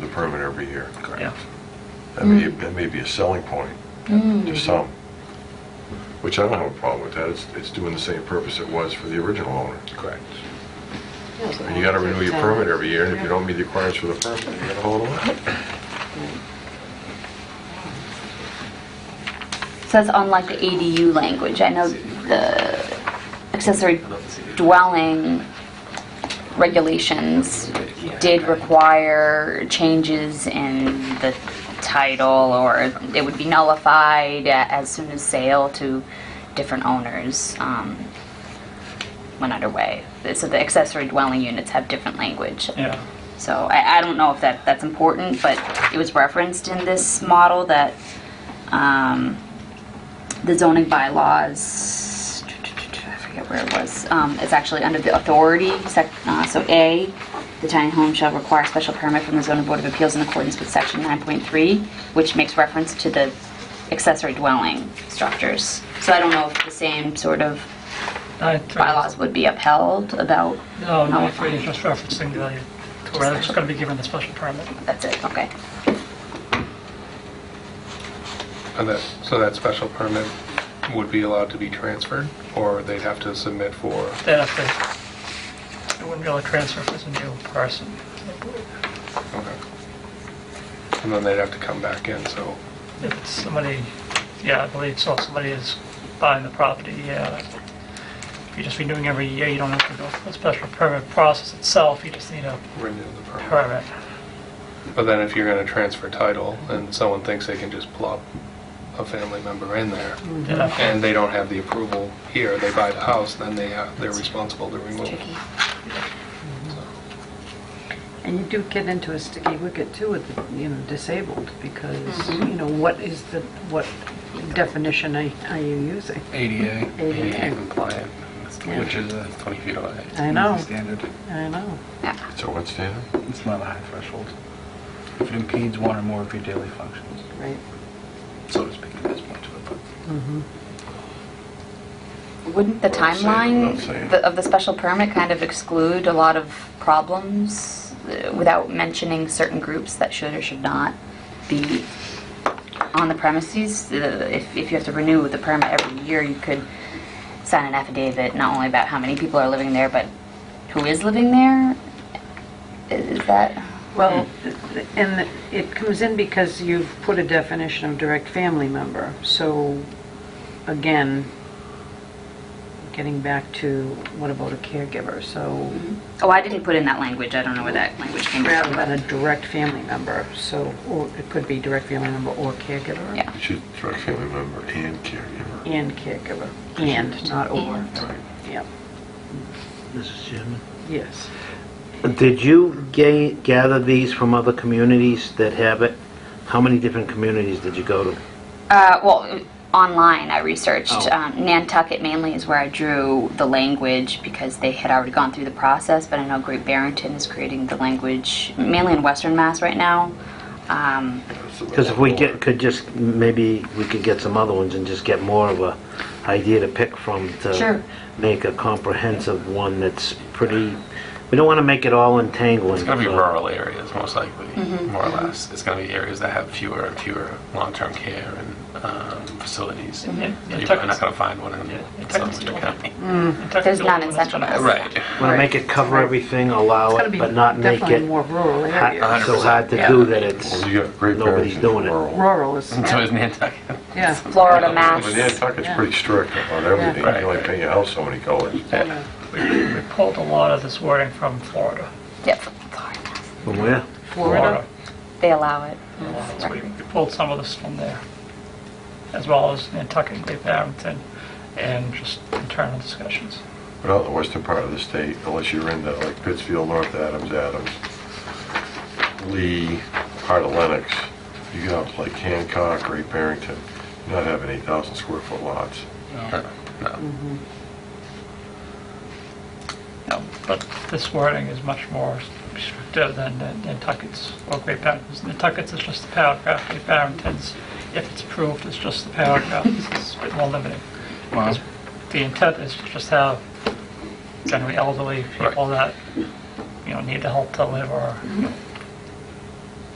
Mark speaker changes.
Speaker 1: permit every year.
Speaker 2: Yeah.
Speaker 1: That may,
Speaker 3: Mm.
Speaker 1: that may be a selling point to some, which I don't have a problem with that. It's, it's doing the same purpose it was for the original owner. Correct. And you gotta renew your permit every year, and if you don't meet the requirements for the permit, you gotta hold on.
Speaker 4: Says unlike the ADU language, I know the accessory dwelling regulations did require changes in the title, or it would be nullified as soon as sale to different owners um, went underway. So the accessory dwelling units have different language.
Speaker 2: Yeah.
Speaker 4: So I, I don't know if that, that's important, but it was referenced in this model that um, the zoning bylaws, I forget where it was, um, it's actually under the authority, sec- uh, so A, the tiny home shall require special permit from the zoning board of appeals in accordance with section 9.3, which makes reference to the accessory dwelling structures. So I don't know if the same sort of
Speaker 2: I-
Speaker 4: bylaws Oh, would be upheld about,
Speaker 2: No, no, it's really just referencing the, to where it's going to be given the special permit.
Speaker 4: that's it, okay.
Speaker 5: And that, so that special permit would be allowed to be transferred, or they'd have to submit for,
Speaker 2: They'd have to, it wouldn't be able to transfer if it's a new person.
Speaker 5: okay. And then they'd have to come back in, so,
Speaker 2: If it's somebody, yeah, I believe so, if somebody is buying the property, yeah. If you're just renewing every year, you don't have to go through the special permit process itself, you just need a
Speaker 5: renew the permit.
Speaker 2: permit.
Speaker 5: But then if you're going to transfer title, and someone thinks they can just plop a family member in there,
Speaker 2: Yeah.
Speaker 5: and they don't have the approval here, they buy the house, then they have, they're responsible to remove. it.
Speaker 4: Tricky.
Speaker 6: And you do get into a sticky wicket too with, the, you know, disabled because, you know, what is the, what definition are are you using?
Speaker 7: ADA.
Speaker 6: ADA.
Speaker 7: compliant,
Speaker 6: Yeah.
Speaker 7: which is uh, 20 feet away.
Speaker 6: I know.
Speaker 7: Standard.
Speaker 6: I know.
Speaker 1: So what's standard?
Speaker 7: It's not a high threshold. If it impedes one or more of your daily functions,
Speaker 6: Right.
Speaker 7: so to speak, there's more to it, but
Speaker 4: Wouldn't the
Speaker 1: Well, I'm saying-
Speaker 4: timeline
Speaker 1: I'm saying-
Speaker 4: th- of the special permit kind of exclude a lot of problems uh, without mentioning certain groups that should or should not be on the premises? Uh, If, if you have to renew the permit every year, you could sign an affidavit not only about how many people are living there, but who is living there? Is that,
Speaker 6: Well, and it comes in because you've put a definition of direct family member. So again, getting back to what about a caregiver? So
Speaker 4: oh, I didn't put in that language, I don't know where that language came
Speaker 6: rather
Speaker 4: from.
Speaker 6: than a direct family member, so, or it could be direct family member or caregiver.
Speaker 4: Yeah.
Speaker 1: You should direct family member and caregiver.
Speaker 6: And caregiver, and, not or. Yeah,
Speaker 3: Mrs. Chairman?
Speaker 6: yes.
Speaker 3: Did you ga- gather these from other communities that have it? How many different communities did you go to?
Speaker 4: Uh, well, online I researched.
Speaker 3: Oh.
Speaker 4: Um, Nantucket mainly is where I drew the language because they had already gone through the process, but I know Great Barrington is creating the language mainly in Western Mass right now. Um,
Speaker 3: Because if we get, could just, maybe we could get some other ones and just get more of a idea to pick from
Speaker 4: Sure.
Speaker 3: to make a comprehensive one that's pretty, we don't want to make it all entangling.
Speaker 7: It's going to be
Speaker 3: so-
Speaker 7: rural areas, most likely, more or less. It's going to be areas that have fewer and fewer long-term care and um, facilities.
Speaker 2: Mhm.
Speaker 7: You're
Speaker 2: Yeah,
Speaker 7: probably
Speaker 2: Tucker's-
Speaker 7: not going to find one
Speaker 2: Yeah,
Speaker 7: in
Speaker 2: Tucker's
Speaker 7: Sumner
Speaker 2: still-
Speaker 7: County.
Speaker 4: There's none in Central Mass.
Speaker 7: Right.
Speaker 3: Want to make it cover everything, allow
Speaker 6: It's gotta
Speaker 3: it,
Speaker 6: be
Speaker 3: but not make
Speaker 6: Definitely
Speaker 3: it
Speaker 6: more
Speaker 3: hot-
Speaker 6: rural areas.
Speaker 3: so
Speaker 7: 100%,
Speaker 3: hard to
Speaker 6: yeah.
Speaker 3: do that it's,
Speaker 1: Well, you got Great
Speaker 3: nobody's
Speaker 1: Barrington
Speaker 3: doing it.
Speaker 1: rural.
Speaker 6: Rural is,
Speaker 7: And so is Nantucket.
Speaker 6: yeah.
Speaker 4: Florida,
Speaker 1: But
Speaker 4: Mass.
Speaker 1: Nantucket's
Speaker 6: Yeah.
Speaker 1: pretty strict on everything. You
Speaker 7: Yeah.
Speaker 1: can only paint your house so many colors.
Speaker 7: Yeah.
Speaker 2: We pulled a lot of this wording from Florida.
Speaker 4: Yep, Florida, Mass.
Speaker 3: from where?
Speaker 6: Florida,
Speaker 4: They allow it.
Speaker 2: So we we pulled some of this from there, as well as Nantucket and Great Barrington, and just internal discussions.
Speaker 1: But out in the western part of the state, unless you're into like Pittsfield, North Adams, Adams, Lee, part of Lenox, you get out to like Hancock, Great Barrington, you're not having 8,000 square foot lots.
Speaker 7: No, no.
Speaker 2: No, But this wording is much more restrictive than than Nantucket's or Great Barrington's. Nantucket's is just the paragraph, Great Barrington's, if it's approved, it's just the paragraph. It's a bit more limiting.
Speaker 7: Wow.
Speaker 2: Because The intent is to just have generally elderly people that, you know, need the help to live or you know,